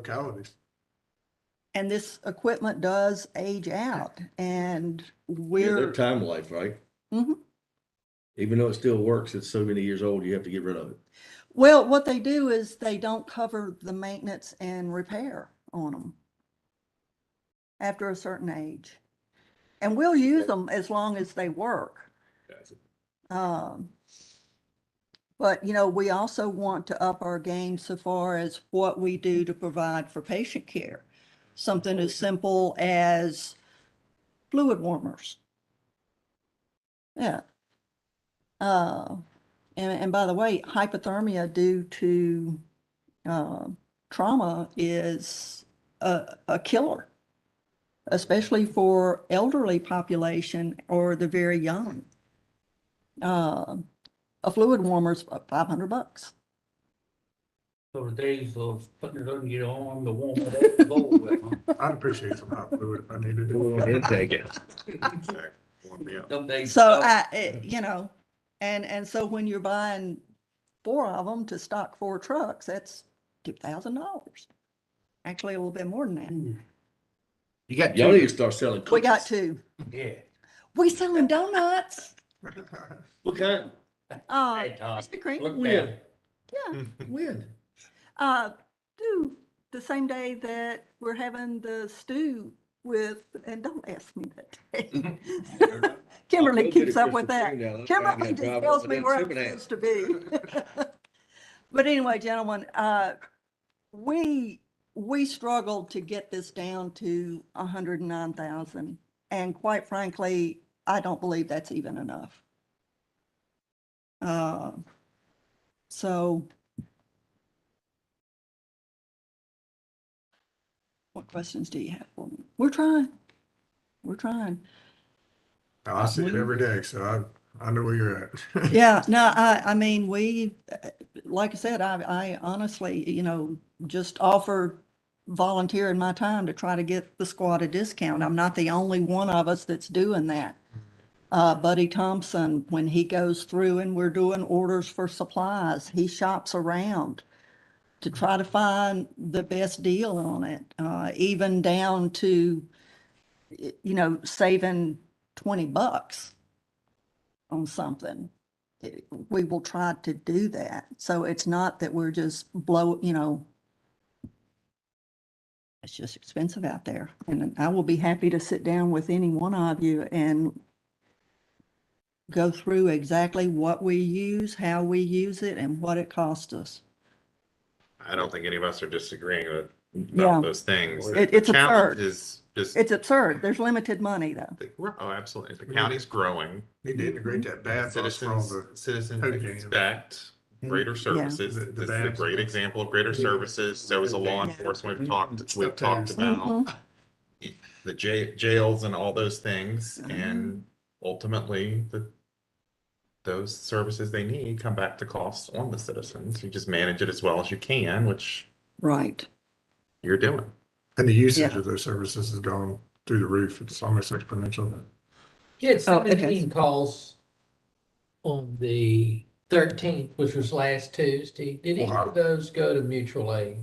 localities. And this equipment does age out and Yeah, we're, Their time life, right? Mhm. Even though it still works, it's so many years old, you have to get rid of it. well, what they do is they don't cover the maintenance and repair on them after a certain age. And we'll use them as long as they work. Um, but, you know, we also want to up our game so far as what we do to provide for patient care. Something as simple as fluid warmers. Yeah. Uh, and, and by the way, hypothermia due to, uh, trauma is a, a killer, especially for elderly population or the very young uh, a fluid warmer's five hundred bucks. So the days of putting it under your arm to warm it up, is over with, huh? I'd appreciate some hot fluid if I needed Did it. take it. Warm me up. Them days. So I, it- you know, and, and so when you're buying four of them to stock four trucks, that's two thousand dollars. Actually, a little bit more than Mm, You got Y'all need to two, start selling that. We got cookies. two. Yeah. We selling donuts. What kind? Uh, Hey, Todd, Mr. Green, Look there. yeah, When? uh, do the same day that we're having the stew with, and don't ask me that. day. Kimberly keeps up with that. Kimberly just tells me where I'm supposed to be. But anyway, gentlemen, uh, we, we struggled to get this down to hundred and nine thousand. And quite frankly, I don't believe that's even enough. Uh, so. What questions do you have for me? We're trying. We're trying. Now, I see it every day, so I, I know where you're at. Yeah, no, I, I mean, we, uh, like I said, I, I honestly, you know, just offer volunteering my time to try to get the squad a discount. I'm not the only one of us that's doing that. Uh, Buddy Thompson, when he goes through and we're doing orders for supplies, he shops around to try to find the best deal on it, uh, even down to, y- you know, saving twenty bucks on something it- we will try to do that. So it's not that we're just blow, you know, it's just expensive out there. And I will be happy to sit down with any one of you and go through exactly what we use, how we use it and what it costs us. I don't think any of us are disagreeing with Yeah. about those things. It- The it's challenge absurd. Is just, It's absurd. There's limited money though. the- we're- oh, absolutely. The We county's growing. Need to integrate that bathhouse from Citizens, the, citizens cocaine. expect greater services. The- the This is a baths. great example of greater services. So is the law Yeah. Mm-hmm. enforcement. We've talked, we've Stuff to talked about Mhm. the ja- jails and all those things Mm-hmm. and ultimately the those services they need come back to costs on the citizens. You just manage it as well as you can, which Right. you're doing. and the usage Yeah. of those services has gone through the roof. It's almost exponential. She had Oh, okay. seventeen calls on the thirteenth, which was last Tuesday. Did either Wow. of those go to mutual aid?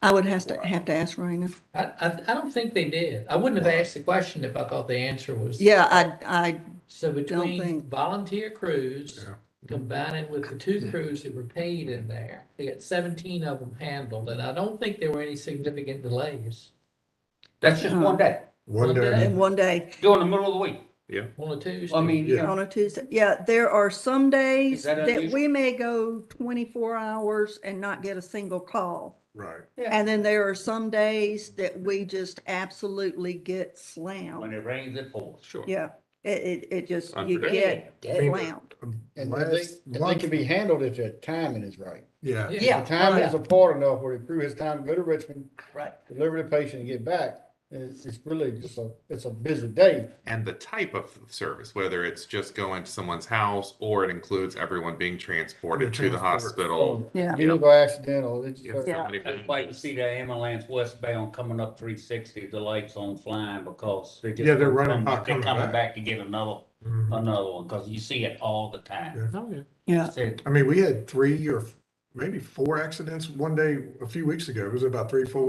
I would have to, have to ask Raina. I, I, I don't think they did. I wouldn't have asked the question if I thought the answer was. Yeah, I, I, So think- between volunteer crews, Yeah. combining with the Hmm. two crews that were paid in there, they got seventeen of them handled, and I don't think there were any significant delays. That's just one day, One in day, one day, during the middle of the week. On a Tuesday. I mean, you Yeah. know, On a Tuesday, yeah, there are some days Is that that unusual? we may go twenty-four hours and not get a single call. right. And then there are some days that we just absolutely get when slammed. it rains, it pours. Sure. Yeah, it, it, it just, you Unpredictable. get Finger. slammed. And I think, Last I month- think can be handled if the timing is right. Yeah, If the timing is apart enough where it threw his time to go to Richmond, Right. deliver the patient and get back, it's, it's really just a, it's a busy day. and the type of service, whether it's just going to someone's house or it includes everyone being transported to the Transport. hospital. Yeah. Vehicle accidental, it's, You have so Yeah. many- That's why you see the ambulance westbound coming up three sixty, the lights on flying because they just. Yeah, they're running hot They're coming coming back. back to get another, Mhm. another one, because you see it all the Yeah. time. Yeah, Said, I mean, we had three or maybe four accidents one day, a few weeks ago. It was about three, four